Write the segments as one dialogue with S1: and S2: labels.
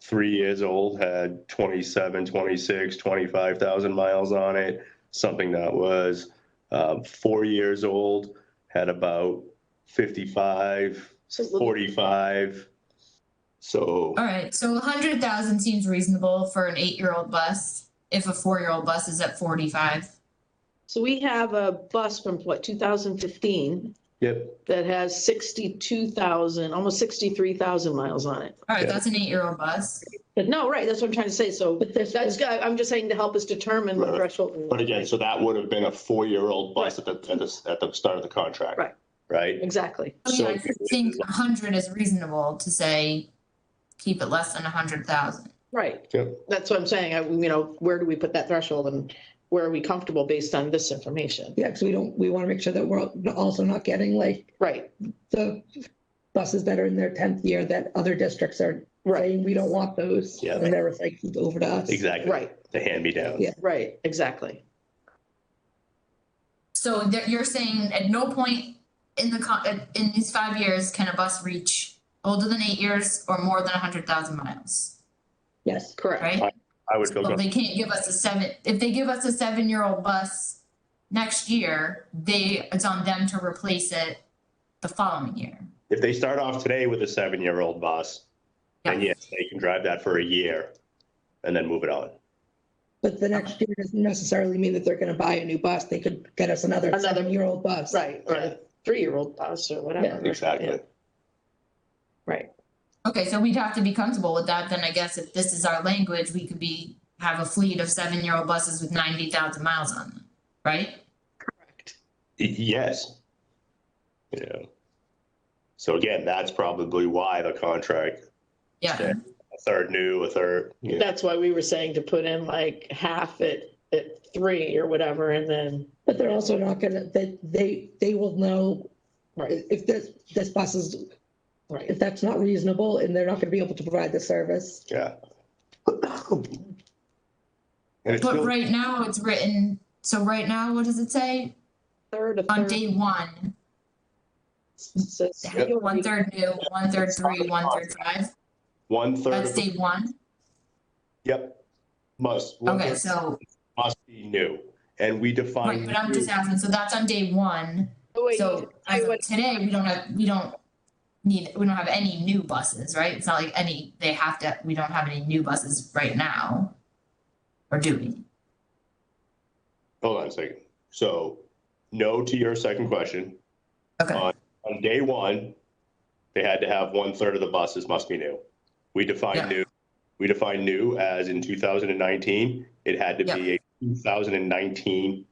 S1: three years old had 27, 26, 25,000 miles on it, something that was um, four years old had about 55,
S2: So it's a little-
S1: 45. So
S3: All right, so a hundred thousand seems reasonable for an eight-year-old bus, if a four-year-old bus is at forty-five.
S2: So we have a bus from what, 2015
S1: yep,
S2: that has 62,000, almost 63,000 miles on it.
S3: All right,
S1: Yeah.
S3: that's an eight-year-old bus.
S2: But no, right, that's what I'm trying to say. So that's, I'm just saying to help us determine the
S1: Right.
S2: threshold.
S1: But again, so that would have been a four-year-old bus at the, at the, at the start of the contract.
S2: Right.
S1: Right?
S2: Exactly.
S3: I mean,
S1: So
S3: I think a hundred is reasonable to say, keep it less than a hundred thousand.
S2: Right.
S1: Yep.
S2: That's what I'm saying. I, you know, where do we put that threshold and where are we comfortable based on this information?
S4: Yeah, because we don't, we want to make sure that we're also not getting like
S2: Right,
S4: the buses that are in their tenth year that other districts are
S2: right,
S4: saying we don't want those.
S1: Yeah.
S4: And they're recycled over to us.
S1: Exactly,
S2: right,
S1: the hand-me-down.
S4: Yeah.
S2: right, exactly.
S3: So that you're saying at no point in the con, at- in these five years can a bus reach older than eight years or more than a hundred thousand miles,
S4: Yes,
S2: Correct.
S3: right?
S1: I would feel
S3: Well,
S1: comfortable,
S3: they can't give us a seven, if they give us a seven-year-old bus next year, they, it's on them to replace it the following year.
S1: if they start off today with a seven-year-old bus, then
S3: Yeah.
S1: yes, they can drive that for a year and then move it on.
S4: but the next year doesn't necessarily mean that they're going to buy a new bus. They could get us another
S2: Another-
S4: seven-year-old bus.
S2: Right, or a three-year-old bus or whatever. Yeah.
S1: Exactly.
S2: Right,
S3: Okay, so we'd have to be comfortable with that, then I guess if this is our language, we could be, have a fleet of seven-year-old buses with ninety thousand miles on them, right?
S2: correct.
S1: Y- Yes. Yeah. So again, that's probably why the contract,
S3: Yeah,
S1: Yeah. a third new, a third, you know,
S2: That's why we were saying to put in like half at, at three or whatever and then,
S4: But they're also not going to, they, they, they will know
S2: right,
S4: if if this, this bus is,
S2: right.
S4: if that's not reasonable and they're not going to be able to provide the service.
S1: yeah. And it's
S3: but
S1: still,
S3: right now it's written, so right now, what does it say?
S2: Third, a
S3: On
S2: third.
S3: day one,
S2: says-
S1: Yep.
S3: one-third new, one-third three, one-third five,
S1: one third,
S3: that's
S1: of the-
S3: day one,
S1: yep, must, one
S3: okay,
S1: third
S3: so,
S1: must be new. And we
S3: right,
S1: define,
S3: but I'm
S1: new-
S3: just asking, so that's on day one,
S2: Oh, wait,
S3: so
S2: tell
S3: as
S2: you
S3: of
S2: what-
S3: today, we don't have, we don't need, we don't have any new buses, right? It's not like any, they have to, we don't have any new buses right now. Or do we?
S1: hold on a second. So no to your second question.
S3: Okay,
S1: On, on day one, they had to have one third of the buses must be new. We
S3: Yeah.
S1: define new, we define new as in two thousand and nineteen, it had to be a two thousand and nineteen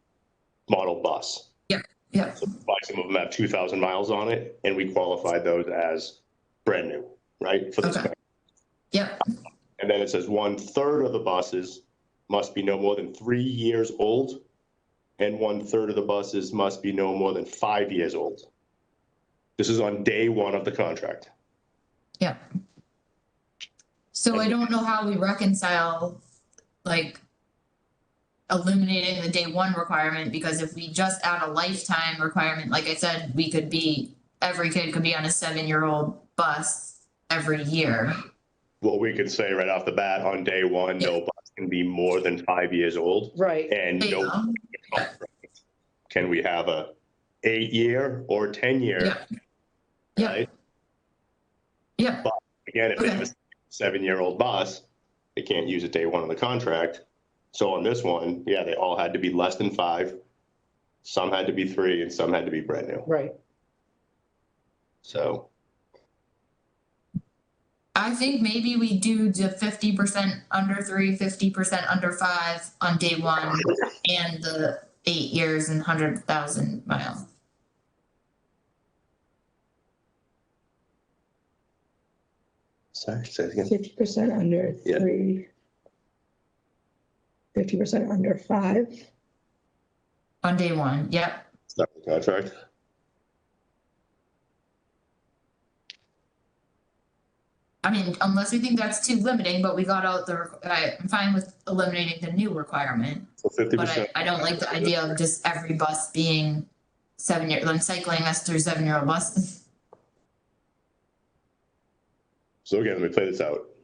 S1: model bus.
S3: yeah,
S1: So by some of them have two thousand miles on it, and we qualified those as brand new, right? for this
S3: Okay.
S1: guy.
S3: yeah,
S1: And then it says one third of the buses must be no more than three years old. And one third of the buses must be no more than five years old. This is on day one of the contract.
S3: yeah. So I don't know how we reconcile, like. Eliminating the day one requirement, because if we just add a lifetime requirement, like I said, we could be, every kid could be on a seven-year-old bus every year.
S1: Well, we can say right off the bat, on day one, no bus can be more than five years old.
S2: Right,
S1: And
S3: There you
S1: no,
S3: go.
S1: can we have a eight year or ten year?
S3: Yeah. Yeah. Yeah,
S1: Again, if they have a
S3: Okay.
S1: seven-year-old bus, they can't use it day one of the contract. So on this one, yeah, they all had to be less than five. Some had to be three and some had to be brand new.
S2: right.
S1: So
S3: I think maybe we do the fifty percent under three, fifty percent under five on day one and the eight years and hundred thousand miles.
S1: sorry, say it again.
S4: Fifty percent under
S1: Yeah.
S4: three. Fifty percent under five.
S3: On day one, yep,
S1: Start the contract.
S3: I mean, unless we think that's too limiting, but we got out the, requ- I, I'm fine with eliminating the new requirement.
S1: So fifty
S3: But
S1: percent.
S3: I, I don't like the idea of just every bus being seven year, like cycling us through seven year old buses.
S1: So again, let me play this out.